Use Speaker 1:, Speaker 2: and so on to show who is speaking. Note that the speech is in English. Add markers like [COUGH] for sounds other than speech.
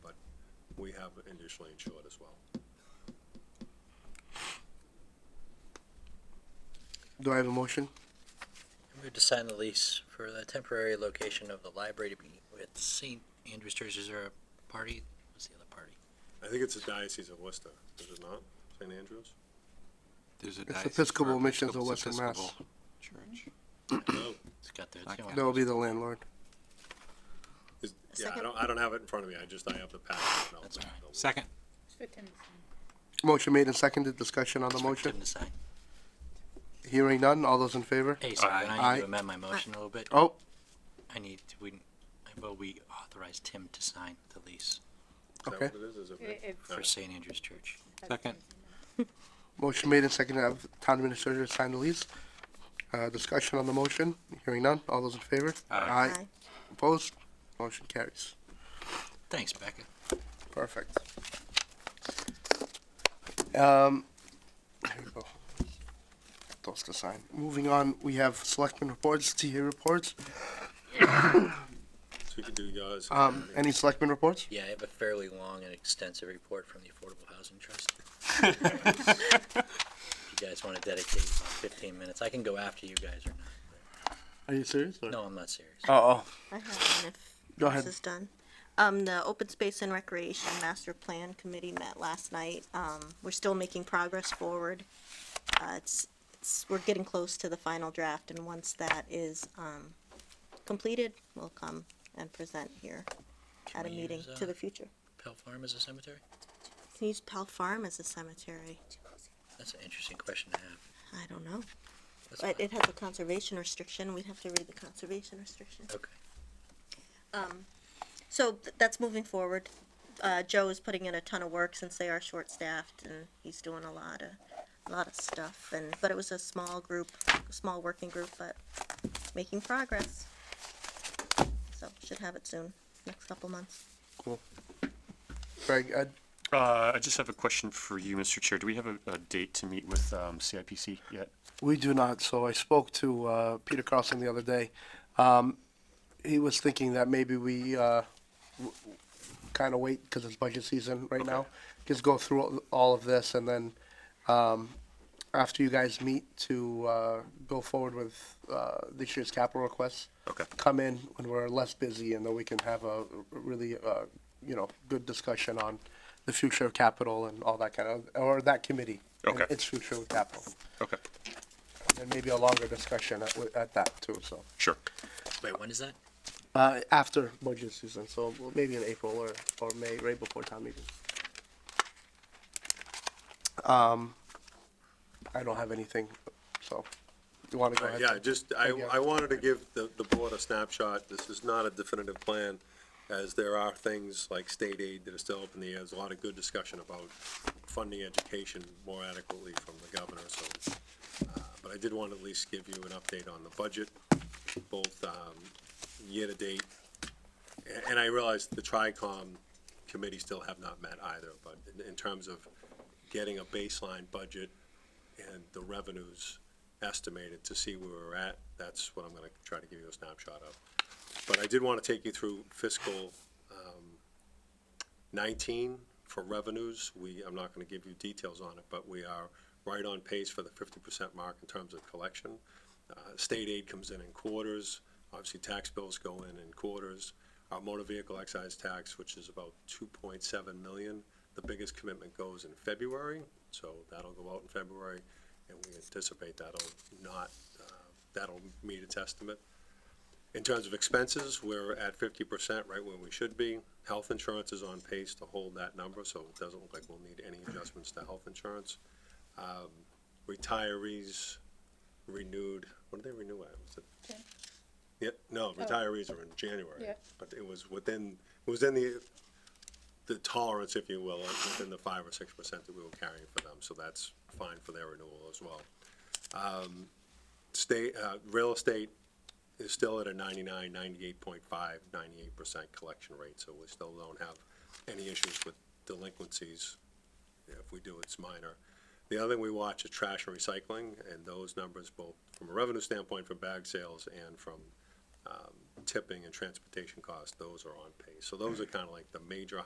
Speaker 1: we have initially insured as well.
Speaker 2: Do I have a motion?
Speaker 3: I move to sign the lease for the temporary location of the library to be with St. Andrews Church. Is there a party? What's the other party?
Speaker 1: I think it's the Diocese of Worcester, is it not? St. Andrews?
Speaker 4: There's a
Speaker 2: It's
Speaker 4: diocese
Speaker 2: Episcopal
Speaker 4: for
Speaker 2: Missions of
Speaker 4: Episcopal's
Speaker 2: Western Mass.
Speaker 4: Episcopal Church.
Speaker 1: No.
Speaker 3: It's got the, it's the
Speaker 4: Okay.
Speaker 3: one-
Speaker 2: That would be the landlord.
Speaker 1: Is- Yeah, I
Speaker 5: Second.
Speaker 1: don't, I don't have it in front of me, I just, I have the packet. and I'll-
Speaker 3: That's all right.
Speaker 1: I'll-
Speaker 4: Second,
Speaker 2: Motion made and seconded. Discussion on the
Speaker 3: it's for
Speaker 2: motion?
Speaker 3: Tim to sign.
Speaker 2: Hearing none. All those in favor?
Speaker 3: Hey, sorry, I
Speaker 2: Aye.
Speaker 3: need to amend my motion a little bit.
Speaker 2: Oh,
Speaker 3: I need, to- we, well, we authorized Tim to sign the
Speaker 1: Is
Speaker 3: lease
Speaker 1: that
Speaker 2: Okay.
Speaker 1: what it is? Is it-
Speaker 5: It- it's-
Speaker 1: All
Speaker 3: for
Speaker 1: right.
Speaker 3: St. Andrews Church.
Speaker 4: second,
Speaker 2: motion made and seconded. Have town administrator sign the lease. Uh, discussion on the motion? Hearing none. All those in favor?
Speaker 4: Aye.
Speaker 5: Aye.
Speaker 2: Opposed? Motion carries.
Speaker 3: Thanks, Becca.
Speaker 2: Perfect. Um, here we go. Those to sign. Moving on, we have selectmen reports, TA reports.
Speaker 1: So you can do yours.
Speaker 2: Um, any selectmen reports?
Speaker 3: Yeah, I have a fairly long and extensive report from the Affordable Housing [LAUGHS] Trust. If you guys want to dedicate about fifteen minutes, I can go after you guys or
Speaker 2: Are you serious?
Speaker 3: not. No, I'm not serious.
Speaker 2: Oh,
Speaker 5: I have one if
Speaker 2: go
Speaker 5: this
Speaker 2: ahead.
Speaker 5: is done. Um, the Open Space and Recreation Master Plan Committee met last night. Um, we're still making progress forward. Uh, it's, it's, we're getting close to the final draft and once that is, um, completed, we'll come and present here at a
Speaker 3: we
Speaker 5: meeting
Speaker 3: use, uh,
Speaker 5: to the future.
Speaker 3: Pell Farm is a cemetery?
Speaker 5: Can you use Pell Farm as a cemetery?
Speaker 3: That's an interesting question to have.
Speaker 5: I don't know.
Speaker 3: That's fine.
Speaker 5: But it has a conservation restriction. We'd have to read the conservation restriction.
Speaker 3: Okay.
Speaker 5: Um, so th- that's moving forward. Uh, Joe is putting in a ton of work since they are short-staffed, and he's doing a lot of, a lot of stuff. And but it was a small group, a small working group, but making progress. So should have it soon, next couple months.
Speaker 2: Greg, Ed,
Speaker 6: Uh, I just have a question for you, Mr. Chair. Do we have a, a date to meet with, um, CIPC yet?
Speaker 2: we do not. So I spoke to uh, Peter Carlson the other day. Um, he was thinking that maybe we uh, w- kind of wait because it's budget season right now. Just go through all- all of this and then um, after you guys meet to uh, go forward with uh, this year's capital requests,
Speaker 6: Okay.
Speaker 2: come in when we're less busy and then we can have a really, uh, you know, good discussion on the future of capital and all that kind of, or that committee. and
Speaker 6: Okay.
Speaker 2: Its future with capital.
Speaker 6: Okay,
Speaker 2: And maybe a longer discussion at, at that too, so.
Speaker 6: sure.
Speaker 3: Wait, when is that?
Speaker 2: Uh, after budget season, so maybe in April or, or May, right before town meeting. Um, I don't have anything, so, you wanna go
Speaker 1: Right,
Speaker 2: ahead?
Speaker 1: Uh, Yeah, just, I,
Speaker 2: Thank you.
Speaker 1: I wanted to give the, the board a snapshot. This is not a definitive plan, as there are things like state aid that are still up in the air. There's a lot of good discussion about funding education more adequately from the governor, so. uh, But I did want to at least give you an update on the budget, both, um, year-to-date. A- And I realize the TRICOM committee still have not met either, but in, in terms of getting a baseline budget and the revenues estimated to see where we're at. That's what I'm gonna try to give you a snapshot of. But I did want to take you through fiscal um, nineteen for revenues. We, I'm not gonna give you details on it, but we are right on pace for the fifty percent mark in terms of collection. Uh, State aid comes in in quarters, obviously tax bills go in in quarters. Our motor vehicle excise tax, which is about two point seven million, the biggest commitment goes in February, so that'll go out in February and we anticipate that'll not, uh, that'll meet its estimate. In terms of expenses, we're at fifty percent, right where we should be. Health insurance is on pace to hold that number, so it doesn't look like we'll need any adjustments to health insurance. Um, Retirees renewed, what did they renew at? Was it-
Speaker 7: Jan. Oh.
Speaker 1: Yeah, no, retirees are in January.
Speaker 7: Yeah.
Speaker 1: But it was within, it was in the, the tolerance, if you will, within the five or six percent that we were carrying for them, so that's fine for their renewal as well. Um, State, uh, real estate is still at a 99, 98.5, 98 percent collection rate, so we still don't have any issues with delinquencies. If we do, it's minor. The other thing we watch is trash and recycling, and those numbers both from a revenue standpoint from bag sales and from, um, tipping and transportation costs, those are on pace. So those are kind of like the major